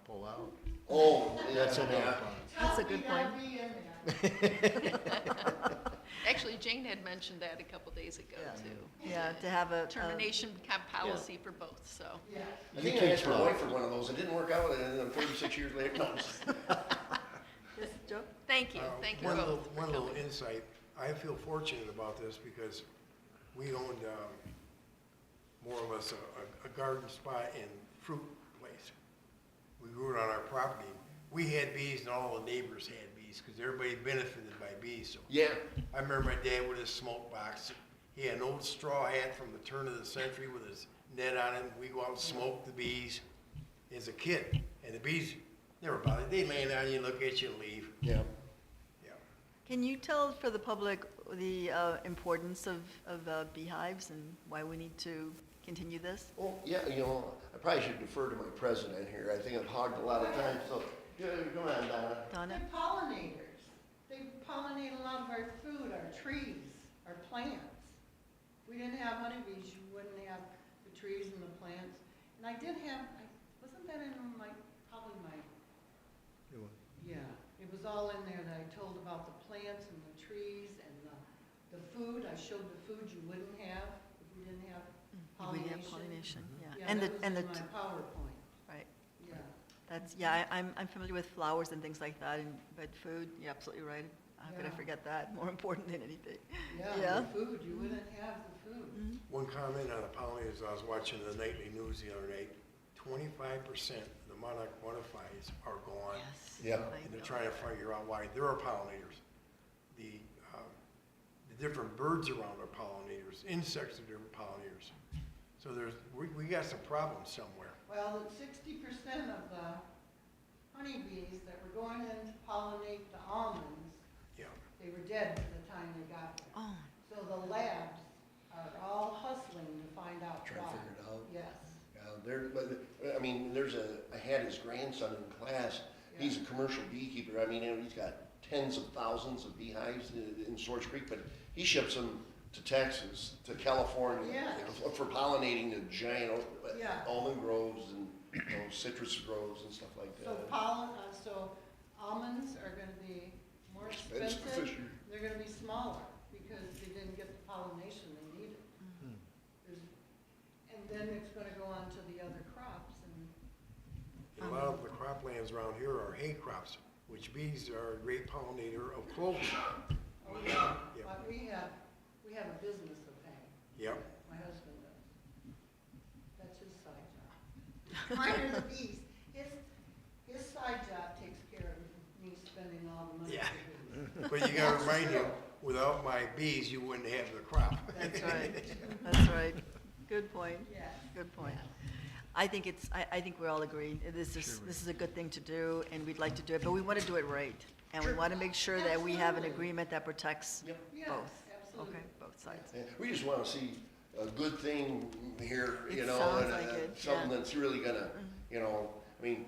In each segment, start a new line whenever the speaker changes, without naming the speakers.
couple out.
Oh,
That's an
yeah,
out.
That's a good
Tell me
point.
that'll be in there.
Actually, Jane had mentioned that a couple days ago,
Yeah.
too.
Yeah, to have a. a-
Termination cap policy for both, so.
yeah. I think I asked my wife for one of those, it didn't work out, and then thirty-six years later, no.
Yes, Joe?
Thank you,
Uh,
thank you
one
both
little-
for
One little
coming.
insight, I feel fortunate about this because we owned, um, more or less a, a- a garden spot and fruit place. We grew it on our property. We had bees and all the neighbors had bees, because everybody benefited by bees, so.
Yeah,
I remember my dad with his smoke box. He had an old straw hat from the turn of the century with his net on it. We go out and smoke the bees as a kid. And the bees never bothered. They land on you, look at you, and leave.
yeah.
Yeah.
Can you tell for the public the uh, importance of, of uh, beehives and why we need to continue this?
Well, yeah, you know, I probably should defer to my president here, I think I've hogged a lot of time, so, yeah, come on, Donna.
Donna?
They're pollinators. They pollinate a lot of our food, our trees, our plants. If we didn't have honeybees, you wouldn't have the trees and the plants. And I did have, I wasn't that in my, probably my, yeah, it was all in there that I told about the plants and the trees and the, the food. I showed the food you wouldn't have if we didn't
We
have
have
Mm-hmm. pollination.
pollination, yeah.
Yeah,
And the,
that was
and the,
in my PowerPoint,
right,
yeah.
that's, yeah, I- I'm, I'm familiar with flowers and things like that, and, but food, you're absolutely right. How could I
Yeah.
forget that? More important than anything.
Yeah,
Yeah. Mm,
the food, you wouldn't have the food.
One comment on the pollen is I was watching the nightly news the other night. Twenty-five percent of the monarch butterflies are gone.
Yes.
Yeah.
I
And they're
know.
trying to figure out why there are pollinators. The, um, the different birds around are pollinators, insects are different pollinators. So there's, we, we got some problems somewhere.
Well, sixty percent of the honeybees that were going in to pollinate the almonds,
Yeah,
they were dead by the time they got there.
Oh,
So the labs are all hustling to find out
Trying to
why.
figure it out.
Yes.
Yeah, Uh, there, but, I mean, there's a, I had his grandson in class, he's a commercial beekeeper, I mean, and he's got tens of thousands of beehives in, in Source Creek, but he ships them to Texas, to California.
Yeah.
For pollinating the giant al-
Yeah.
almond groves and, you know, citrus groves and stuff like
So
that.
pollen, uh, so almonds are gonna be more
Expensive.
expensive, they're gonna be smaller, because they didn't get the pollination they needed.
Hmm.
There's- And then it's gonna go on to the other crops, and
And a lot of the
Um.
croplands around here are hay crops, which bees are a great pollinator of clover.
Oh, yeah,
Yeah.
but we have, we have a business of hay,
Yep,
my husband does. That's his side job. Mine are the bees, his, his side job takes care of me spending all the money.
Yeah.
for bees.
but you gotta remind him, without my bees, you wouldn't have the crop.
that's right, that's right. Good point.
Yeah.
Good point. I think it's, I, I think we all agree, this is, this is a good thing to do, and we'd like to do it, but we want to do it right. And we want to make sure that we have an
Absolutely.
agreement that protects
Yep.
Yes,
both,
absolutely.
Oh, okay, both sides.
Yeah, We just wanna see a good thing here, you
It
know,
sounds
and, uh,
like it,
something
yeah. Mm-hmm.
that's really gonna, you know, I mean,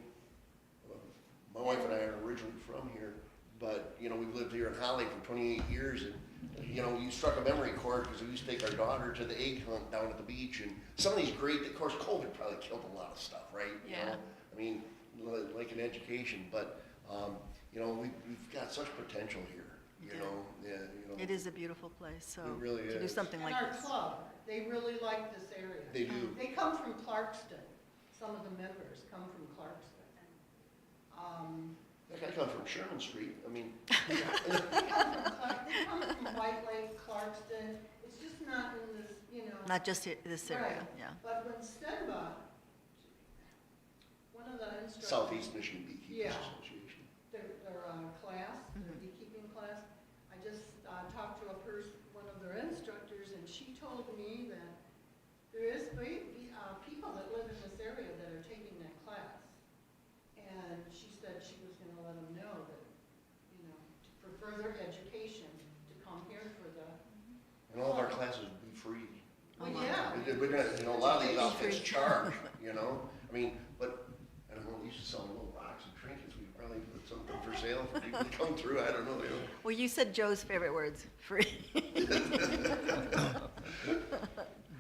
my wife and I are originally from here, but, you know, we've lived here in Holly for twenty-eight years, and, you know, you struck a memory chord, because we used to take our daughter to the egg hunt down at the beach, and some of these great, of course, COVID probably killed a lot of stuff, right? You
Yeah.
know, I mean, li- like in education, but, um, you know, we've, we've got such potential here, you
Yeah.
know, yeah, you know.
It is a beautiful place, so.
It really
To do
is.
something like
And our
this.
club, they really like this area.
They do.
They come from Clarkston, some of the members come from Clarkston. Um,
Like I come from Sherman Street, I mean,
They come from Clark- they come from White Lake, Clarkston, it's just not in this, you know.
Not just i- this area,
Right.
yeah.
But when Stenba, one of the instructors.
Southeast Michigan Beekeepers
Yeah.
Association.
Their, their uh, class, their
Mhm.
beekeeping class, I just uh, talked to a person, one of their instructors, and she told me that there is be- be- uh, people that live in this area that are taking that class. And she said she was gonna let them know that, you know, to- for further education, to come here for the,
And all of our classes would be free.
Oh,
well,
wow.
yeah.
We did- We're gonna, you know, a lot of these
Free.
outfits charge, you know? I mean, but, I don't know, we used to sell little rocks and trinkets, we probably put something for sale for people to come through, I don't know, you know?
Well, you said Joe's favorite words, free.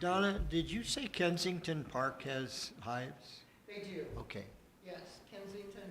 Donna, did you say Kensington Park has hives?
They do,
Okay.
yes, Ken Kensington